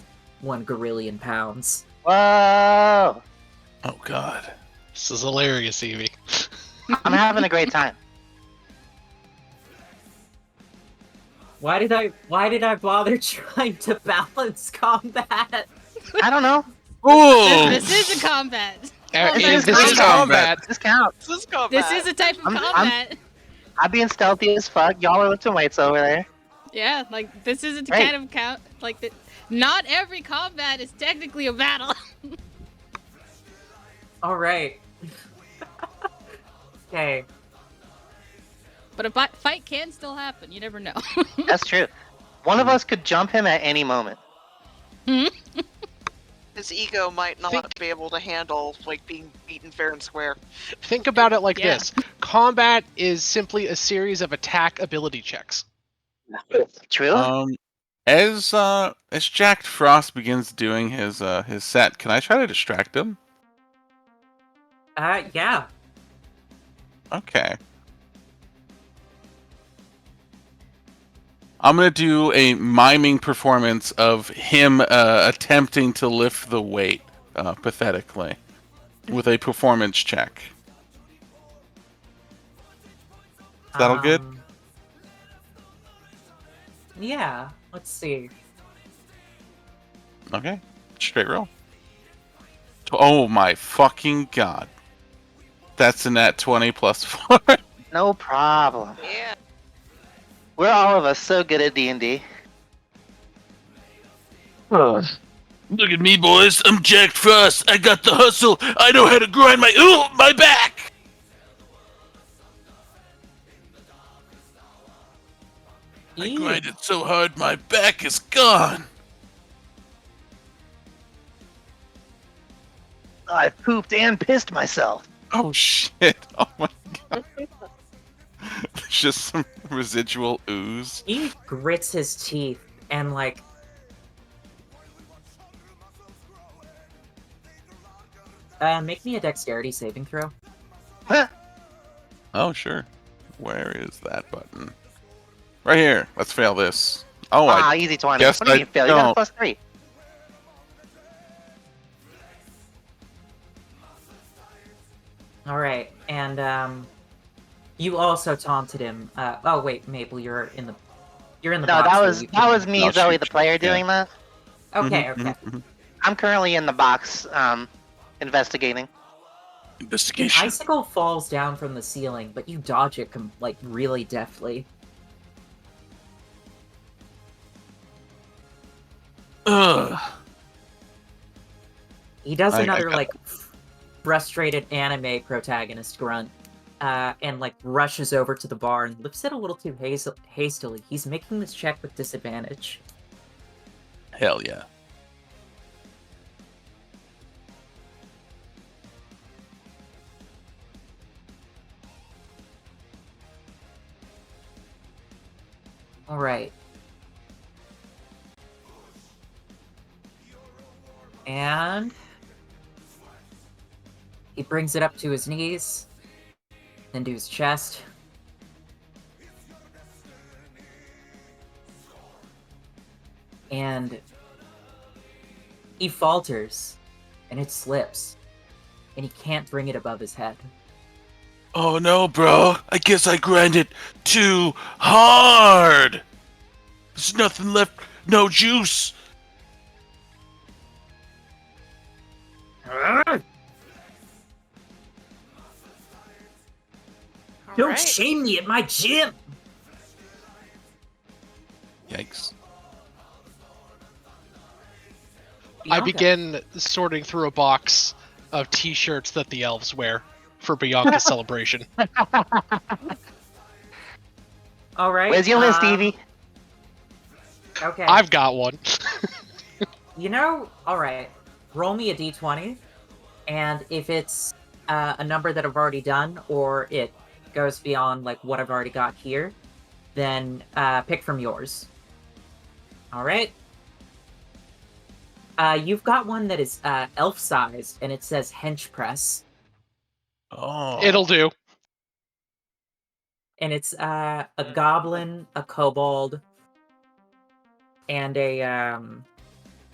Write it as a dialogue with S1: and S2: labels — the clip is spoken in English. S1: one gorillion pounds.
S2: Whoa!
S3: Oh god. This is hilarious, Evie.
S2: I'm having a great time.
S1: Why did I? Why did I bother trying to balance combat?
S2: I don't know. Oh.
S3: Ooh!
S4: This, this is a combat.
S3: Uh,
S2: This
S3: it-
S2: is
S3: this is
S5: Um,
S3: combat.
S2: This counts.
S3: This is
S5: Oh,
S3: combat.
S4: This is a type of
S2: I'm- I'm-
S4: combat.
S2: I'm being stealthy as fuck. Y'all are lifting weights over there.
S4: Yeah, like this isn't the
S2: Right.
S4: kind of count. Like the, not every combat is technically a battle.
S1: All right. okay.
S4: But a bi- fight can still happen. You never know.
S2: That's true. One of us could jump him at any moment.
S6: His ego might not
S3: Think-
S6: be able to handle like being beaten fair and square.
S3: Think about it like
S4: Yeah.
S3: this. Combat is simply a series of attack ability checks.
S2: True.
S5: Um, as uh, as Jack Frost begins doing his uh, his set, can I try to distract him?
S1: Uh, yeah.
S5: Okay. I'm gonna do a miming performance of him uh, attempting to lift the weight uh, pathetically with a performance check. Is that all good?
S1: Um, Yeah. Let's see.
S5: Okay, straight roll. Oh my fucking god! That's a nat twenty plus four.
S2: No problem.
S6: Yeah.
S2: We're all of us so good at D and D.
S5: Look at me, boys. I'm Jack Frost. I got the hustle. I know how to grind my ooh, my back. I
S1: Ew.
S5: grinded so hard, my back is gone.
S2: I pooped and pissed myself.
S5: Oh shit! Oh my god. There's just some residual ooze.
S1: He grits his teeth and like Uh, make me a dexterity saving throw.
S5: Oh sure. Where is that button? Right here. Let's fail this. Oh,
S2: ah,
S5: I
S2: easy twenty.
S5: guess
S2: What do you
S5: I
S2: mean fail? You got
S5: don't.
S2: a plus three.
S1: All right, and um, you also taunted him. Uh, oh wait, Mabel, you're in the, you're in the.
S2: No,
S1: box
S2: that
S1: now,
S2: was
S1: you
S2: that
S1: can-
S2: was me,
S5: I'll
S2: Zoe,
S5: shoot
S2: the
S5: you.
S2: player,
S5: Yeah.
S2: doing that.
S1: Ah, Okay,
S5: Mhm,
S1: okay.
S5: mhm,
S2: I'm currently in the box, um, investigating.
S5: mhm. Investigation.
S1: Icicle falls down from the ceiling, but you dodge it com- like really deftly.
S5: Ugh.
S1: He does
S5: I- I
S1: another
S5: got
S1: like frustrated anime protagonist grunt, uh, and like rushes over to the bar and lifts it a little too haz- hastily. He's making this check with disadvantage.
S5: Hell yeah.
S1: All right. And he brings it up to his knees, then to his chest. And he falters, and it slips, and he can't bring it above his head.
S5: Oh no, bro. I guess I grinded too hard. There's nothing left. No juice.
S1: Don't
S6: Alright.
S1: shame me at my gym!
S5: Yikes.
S3: I
S1: Bianca.
S3: begin sorting through a box of t-shirts that the elves wear for Bianca's celebration.
S1: All right.
S2: Where's your list,
S1: um,
S2: Evie?
S1: Okay.
S3: I've got one.
S1: You know, all right. Roll me a d20, and if it's uh, a number that I've already done, or it goes beyond like what I've already got here, then uh, pick from yours. All right. Uh, you've got one that is uh, elf-sized, and it says hench press,
S5: Oh.
S3: It'll do.
S1: and it's uh, a goblin, a kobold, and a um,